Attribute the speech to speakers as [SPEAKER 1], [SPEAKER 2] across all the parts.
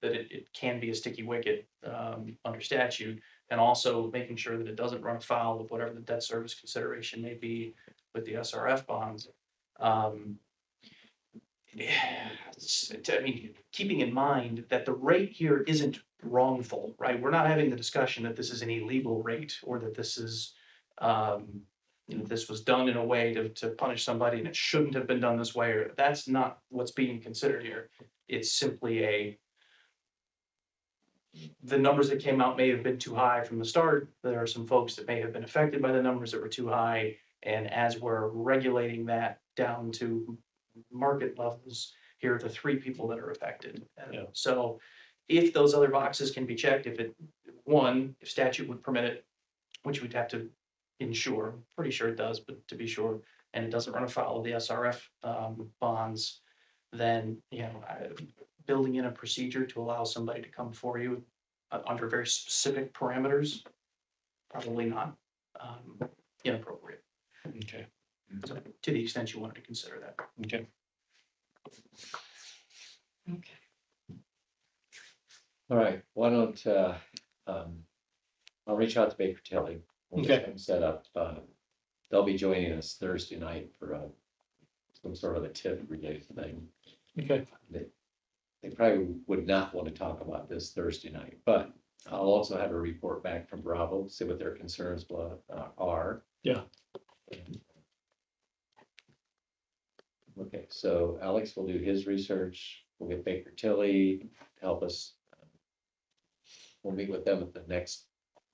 [SPEAKER 1] that it, it can be a sticky wicket, um, under statute. And also making sure that it doesn't run afoul of whatever the debt service consideration may be with the SRF bonds. Um, yeah, it's- it's- I mean, keeping in mind that the rate here isn't wrongful, right? We're not having the discussion that this is an illegal rate or that this is, um, you know, this was done in a way to, to punish somebody and it shouldn't have been done this way, or that's not what's being considered here. It's simply a the numbers that came out may have been too high from the start. There are some folks that may have been affected by the numbers that were too high. And as we're regulating that down to market levels, here are the three people that are affected. And
[SPEAKER 2] Yeah.
[SPEAKER 1] So if those other boxes can be checked, if it, one, if statute would permit it, which we'd have to ensure, I'm pretty sure it does, but to be sure, and it doesn't run afoul of the SRF um, bonds, then, you know, I- building in a procedure to allow somebody to come for you uh, under very specific parameters, probably not um, inappropriate,
[SPEAKER 2] Okay,
[SPEAKER 1] so, to the extent you wanted to consider that.
[SPEAKER 2] okay.
[SPEAKER 3] Okay.
[SPEAKER 4] All right, why don't, uh, um, I'll reach out to Baker Tilly. We'll get
[SPEAKER 2] Okay.
[SPEAKER 4] them Set up, uh, they'll be joining us Thursday night for, uh, some sort of a tip related thing.
[SPEAKER 2] Okay.
[SPEAKER 4] They probably would not want to talk about this Thursday night, but I'll also have a report back from Bravo, see what their concerns bla- uh, are.
[SPEAKER 2] Yeah.
[SPEAKER 4] Okay, so Alex will do his research. We'll get Baker Tilly to help us. We'll meet with them at the next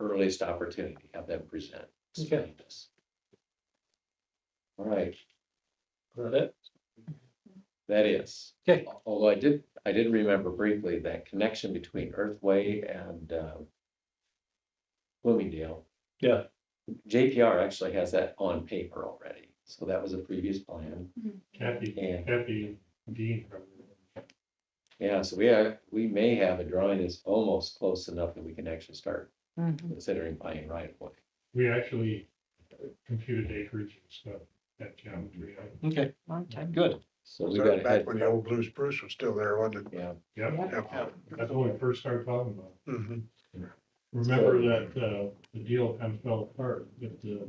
[SPEAKER 4] earliest opportunity, have them present. explain this. All right,
[SPEAKER 2] Is that it?
[SPEAKER 4] that is.
[SPEAKER 2] Okay.
[SPEAKER 4] Although I did, I did remember briefly that connection between Earthway and um, Bloomingdale.
[SPEAKER 2] Yeah.
[SPEAKER 4] JPR actually has that on paper already, so that was a previous plan.
[SPEAKER 5] Kathy,
[SPEAKER 4] And-
[SPEAKER 5] Kathy Dean.
[SPEAKER 4] Yeah, so we are, we may have a drawing that's almost close enough that we can actually start
[SPEAKER 3] Mm-hmm,
[SPEAKER 4] considering buying right away.
[SPEAKER 5] We actually computed acreage and stuff at geometry.
[SPEAKER 2] Okay,
[SPEAKER 3] Long time.
[SPEAKER 2] good.
[SPEAKER 4] So we got
[SPEAKER 6] Started
[SPEAKER 4] ahead,
[SPEAKER 6] back when the old Blues Bruce was still there, wasn't
[SPEAKER 4] yeah,
[SPEAKER 5] Yep,
[SPEAKER 6] it?
[SPEAKER 5] that's when we first started talking about. it.
[SPEAKER 6] Mhm.
[SPEAKER 5] Remember that, uh, the deal kind of fell apart with the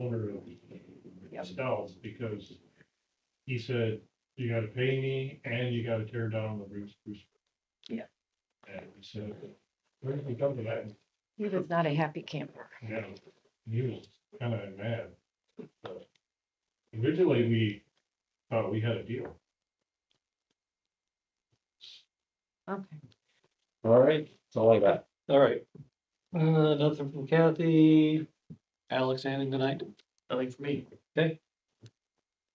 [SPEAKER 5] owner
[SPEAKER 3] Yep.
[SPEAKER 5] of Stell's because he said, you gotta pay me and you gotta tear down the Bruce Bruce.
[SPEAKER 3] Yeah.
[SPEAKER 5] And we said, where did we come to that?
[SPEAKER 3] He was not a happy camper.
[SPEAKER 5] Yeah, he was kind of mad. but Originally, we thought we had a deal.
[SPEAKER 3] Okay.
[SPEAKER 2] All right,
[SPEAKER 4] that's all I got.
[SPEAKER 2] all right. Uh, nothing from Kathy. Alex, anything tonight?
[SPEAKER 1] Nothing for me.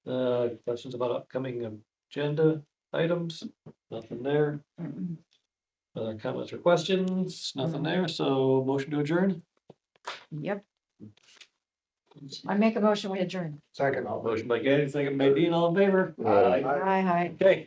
[SPEAKER 2] Uh, questions about upcoming agenda items? Nothing there.
[SPEAKER 3] Mm-mm.
[SPEAKER 2] Other comments or questions?
[SPEAKER 3] Mm-hmm.
[SPEAKER 2] Nothing there, so motion to adjourn?
[SPEAKER 3] Yep. I make a motion, we adjourn.
[SPEAKER 6] Second.
[SPEAKER 2] Motion by Gay, second by Dean, all in favor?
[SPEAKER 6] Aye.
[SPEAKER 3] Hi, hi.
[SPEAKER 2] Okay.